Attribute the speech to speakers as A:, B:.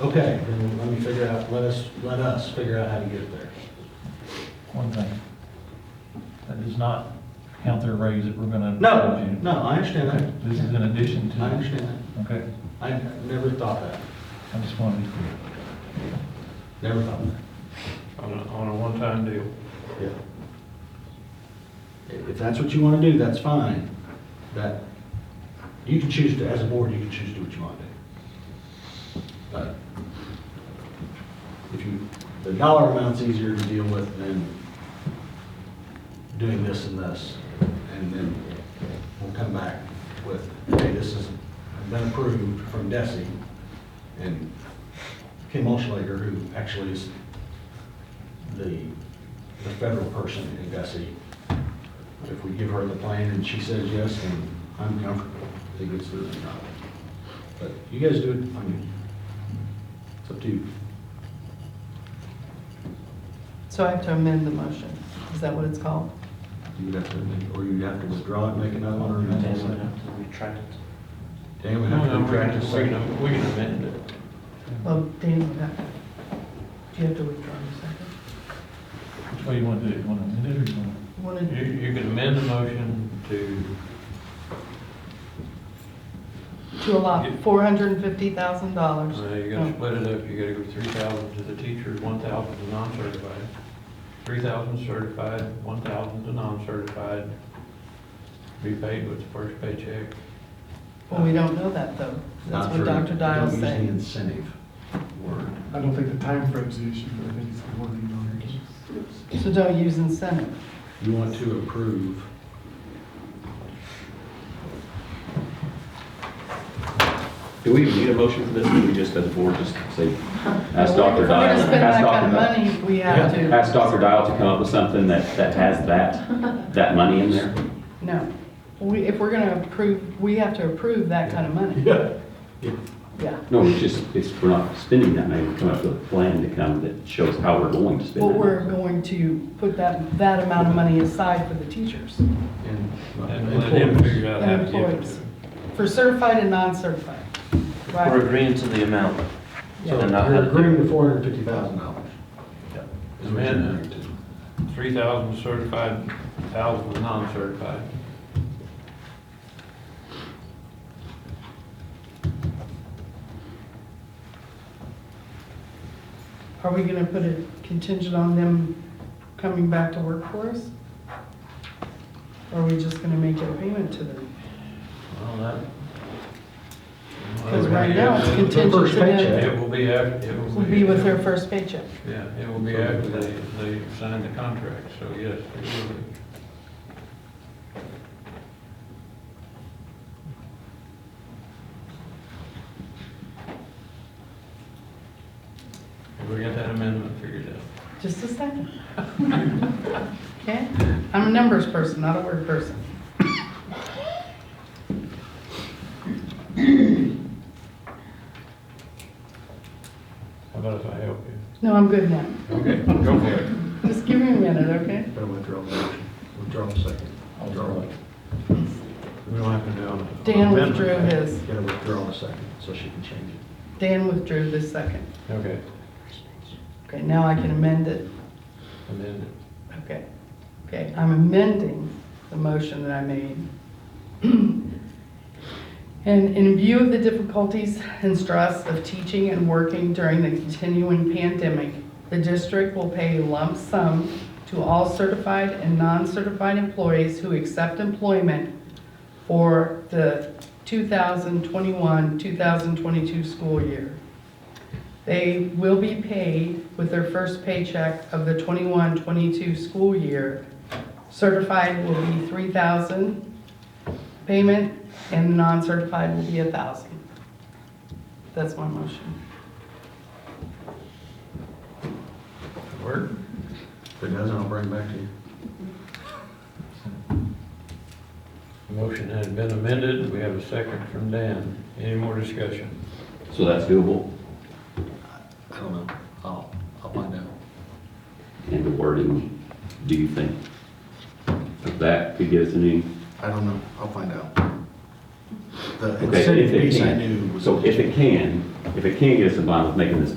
A: Okay, then let me figure out, let us, let us figure out how to get there.
B: One thing, that does not count their raise that we're gonna.
A: No, no, I understand
B: Okay,
A: that.
B: This is in addition
A: I
B: to,
A: understand that.
B: okay,
A: I never thought that,
B: I just wanted to be clear.
A: never thought that.
C: on a, on a one-time deal.
A: Yeah. If if that's what you want to do, that's fine. That, you can choose to, as a board, you can choose to do what you want to do. But if you, the dollar amount's easier to deal with than doing this and this. And then we'll come back with, hey, this has been approved from Desi. And Kim Olschlager, who actually is the, the federal person in Desi, if we give her the plan and she says yes, then I'm comfortable. I think it's really not. But you guys do it, I mean, it's up to you.
D: So I have to amend the motion. Is that what it's called?
A: You'd have to, make- or you'd have to withdraw it, make another one, or
E: Then
A: amend
E: we would
A: it.
E: have to retract it.
A: Dan would
C: No,
A: have to
C: no, we
A: retract
C: can,
A: his
C: we
A: second.
C: can- we can amend it.
D: Well, Dan, you have to, do you have to withdraw your second?
B: Which way you wanna do it, you wanna amend it or you wanna?
D: You wanna-
C: You, you can amend the motion to,
D: To allot $450,000.
C: uh, you're gonna split it up, you gotta go three thousand to the teachers, one thousand to non-certified, three thousand certified, one thousand to non-certified, be paid with the first paycheck.
D: Well, we don't know that, though. That's
A: Not
D: what
A: for-
D: Dr. Dial
A: don't Use the
D: saying.
A: incentive word.
F: I don't think the timeframe's the issue, but I think it's the wording on it.
D: So don't use incentive.
A: You want to approve.
G: Do we even need a motion for this? Do we just, as a board, just say, ask Dr.
D: If we're
G: Dial?
D: gonna spend
G: ask
D: that kind
G: Dr.
D: of
G: Dial-
D: money, we have
A: Yeah.
D: to.
G: Ask Dr. Dial to come up with something that, that has that, that money in there?
D: No. We, if we're gonna approve, we have to approve that kind of money.
A: Yeah.
D: Yeah.
G: No, it's just, it's, we're not spending that money, we're coming up with a plan to come that shows how we're going to spend
D: But
G: it.
D: we're going to put that, that amount of money aside for the teachers
A: And.
C: And let them figure out how
D: and
C: to give it to
D: employees,
C: them.
D: for certified and non-certified.
E: We're
D: Right?
E: agreeing to the amount.
A: So
E: And not how
A: you're
E: to-
A: agreeing to four hundred and fifty thousand dollars.
C: Amend three thousand certified, thousand to non-certified.
D: Are we gonna put it contingent on them coming back to work for us? Or are we just gonna make a payment to them?
C: Well, that.
D: Because right now it's contingent
A: first
D: to them,
A: paycheck.
C: It will be after, it will
D: will
C: be.
D: be with their first paycheck.
C: Yeah, it will be after they, they sign the contract, so yes, it will be. Have We got that amendment figured out.
D: Just a second. Okay? I'm a numbers person, not a word person.
C: How about if I help you?
D: No, I'm good now.
C: Okay, go for it.
D: Just give me a minute, okay?
A: Better withdraw the motion, withdraw the second. Withdraw it.
C: We don't have to do on.
D: Dan withdrew his.
A: You gotta withdraw the second, so she can change it.
D: Dan withdrew the second.
C: Okay,
D: Okay, now I can amend it.
C: amended.
D: Okay. Okay, I'm amending the motion that I made. And in view of the difficulties and stress of teaching and working during the continuing pandemic, the district will pay a lump sum to all certified and non-certified employees who accept employment for the 2021-2022 school year. They will be paid with their first paycheck of the 21-22 school year. Certified will be 3,000 payment, and non-certified will be 1,000. That's my motion.
C: Work?
A: If it doesn't, I'll bring it back to you.
C: Motion has been amended. We have a second from Dan. Any more discussion?
G: So that's doable,
A: I don't know, I'll, I'll find out.
G: and the wording, do you think? That could get us a new,
A: I don't know, I'll find out. The
G: Okay, if
A: incentive
G: it
A: piece I
G: can.
A: knew was.
G: So if it can, if it can get us in line with making this